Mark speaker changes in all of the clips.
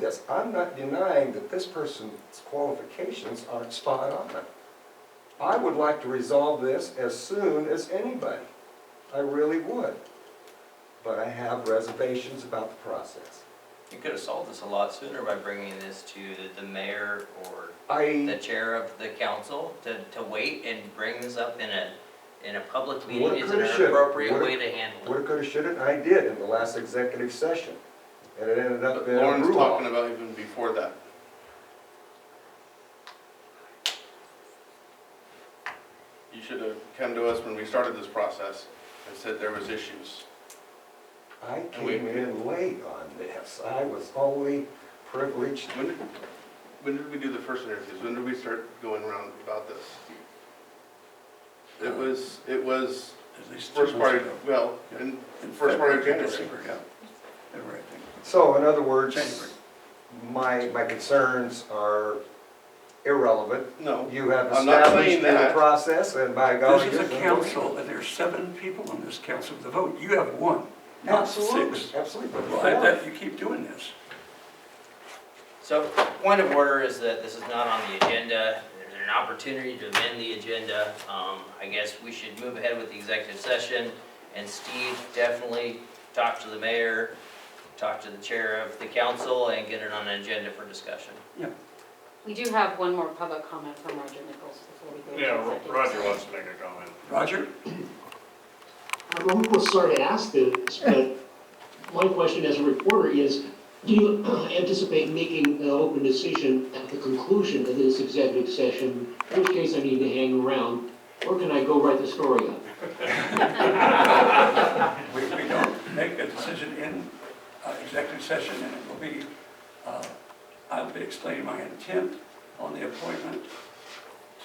Speaker 1: this. I'm not denying that this person's qualifications aren't spot on. I would like to resolve this as soon as anybody. I really would. But I have reservations about the process.
Speaker 2: You could have solved this a lot sooner by bringing this to the mayor or the
Speaker 1: I,
Speaker 2: chair of the council to, to wait and bring this up in a, in a public
Speaker 1: Woulda,
Speaker 2: meeting is an
Speaker 1: coulda, shoulda.
Speaker 2: appropriate
Speaker 1: Woulda-
Speaker 2: way to handle
Speaker 1: woulda,
Speaker 2: it.
Speaker 1: coulda, shoulda, and I did in the last executive session. And it ended up
Speaker 3: But
Speaker 1: in a
Speaker 3: Lauren's
Speaker 1: ruin.
Speaker 3: talking about even before that. You should have come to us when we started this process and said there was issues.
Speaker 1: I came in late on this. I was only privileged
Speaker 3: When did, when did we do the first interviews? When did we start going around about this? It was, it was
Speaker 4: At least
Speaker 3: first
Speaker 4: Uh, two months
Speaker 3: part,
Speaker 4: ago.
Speaker 3: of- well, in
Speaker 4: In
Speaker 3: first part of
Speaker 4: February,
Speaker 3: January.
Speaker 4: December, yeah. February, I think.
Speaker 1: So in other
Speaker 4: January.
Speaker 1: words, my, my concerns are irrelevant.
Speaker 3: No,
Speaker 1: You have
Speaker 3: I'm not
Speaker 1: established
Speaker 3: saying
Speaker 1: a
Speaker 3: that.
Speaker 1: process and by golly.
Speaker 4: This is
Speaker 1: you're
Speaker 4: a
Speaker 1: gonna
Speaker 4: council, and there's seven people on this council to vote. You have one,
Speaker 1: vote.
Speaker 4: not
Speaker 1: Absolutely,
Speaker 4: six.
Speaker 1: absolutely.
Speaker 4: Well, I bet you keep doing this.
Speaker 2: So, point of order is that this is not on the agenda. There's an opportunity to amend the agenda. Um, I guess we should move ahead with the executive session. And Steve, definitely talk to the mayor, talk to the chair of the council, and get it on an agenda for discussion.
Speaker 5: We do have one more public comment from Roger Nichols before we go
Speaker 6: Yeah,
Speaker 5: to executive.
Speaker 6: Roger
Speaker 5: session.
Speaker 6: wants to make a comment.
Speaker 4: Roger?
Speaker 7: I'm almost sorry to ask this, but my question as a reporter is, do you anticipate making an open decision at the conclusion of this executive session? In which case I need to hang around, or can I go write the story up?
Speaker 4: We, we don't make a decision in uh, executive session, and it will be, uh, I'll be explaining my intent on the appointment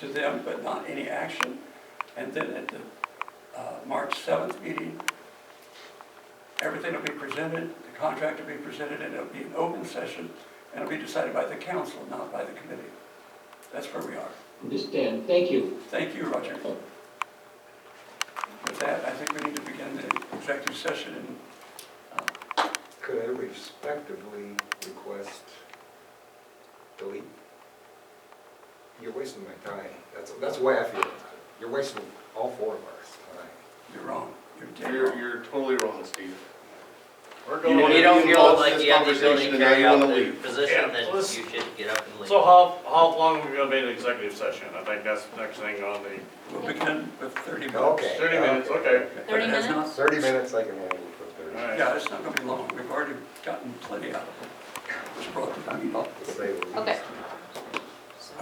Speaker 4: to them, but not any action. And then at the uh, March 7th meeting, everything will be presented, the contract will be presented, and it'll be an open session, and it'll be decided by the council, not by the committee. That's where we are.
Speaker 7: Understand, thank you.
Speaker 4: Thank you, Roger. With that, I think we need to begin the executive session and
Speaker 1: Could I respectively request delete? You're wasting my time. That's, that's the way I feel about it. You're wasting all four of our time.
Speaker 4: You're wrong. You're dead
Speaker 3: You're,
Speaker 4: wrong.
Speaker 3: you're totally wrong, Steve.
Speaker 6: We're
Speaker 3: You
Speaker 6: going,
Speaker 3: wanna
Speaker 2: You
Speaker 3: be
Speaker 2: don't feel
Speaker 3: involved in
Speaker 2: like
Speaker 3: this
Speaker 2: you have the ability
Speaker 3: conversation
Speaker 2: to
Speaker 3: and now
Speaker 2: carry
Speaker 3: you
Speaker 2: out
Speaker 3: wanna
Speaker 2: the
Speaker 3: leave.
Speaker 2: position,
Speaker 6: Yeah,
Speaker 2: then you
Speaker 6: let's-
Speaker 2: should get up and leave.
Speaker 6: so how, how long are we gonna be in executive session? I think that's the next thing on the,
Speaker 4: We'll begin with 30 minutes.
Speaker 1: Okay.
Speaker 6: thirty minutes, okay.
Speaker 4: But
Speaker 5: 30
Speaker 4: it has not-
Speaker 1: Thirty minutes, I can handle it for thirty,
Speaker 6: Alright.
Speaker 4: Yeah, it's not going to be long. We've already gotten plenty out of it. Just brought the meeting up.
Speaker 1: to say the least.
Speaker 5: Okay,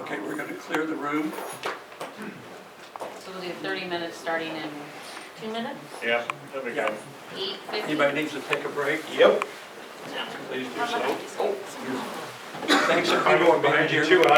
Speaker 4: Okay, we're going to clear the room.
Speaker 5: so we'll do 30 minutes starting in two minutes,
Speaker 6: Yeah, there we go.
Speaker 4: Yeah.
Speaker 5: 8:50.
Speaker 4: Anybody needs to take a break?
Speaker 6: Yep. Please do so.
Speaker 4: Thanks
Speaker 6: I'm
Speaker 4: everyone
Speaker 6: going
Speaker 4: behind
Speaker 6: behind
Speaker 4: here.
Speaker 6: you too,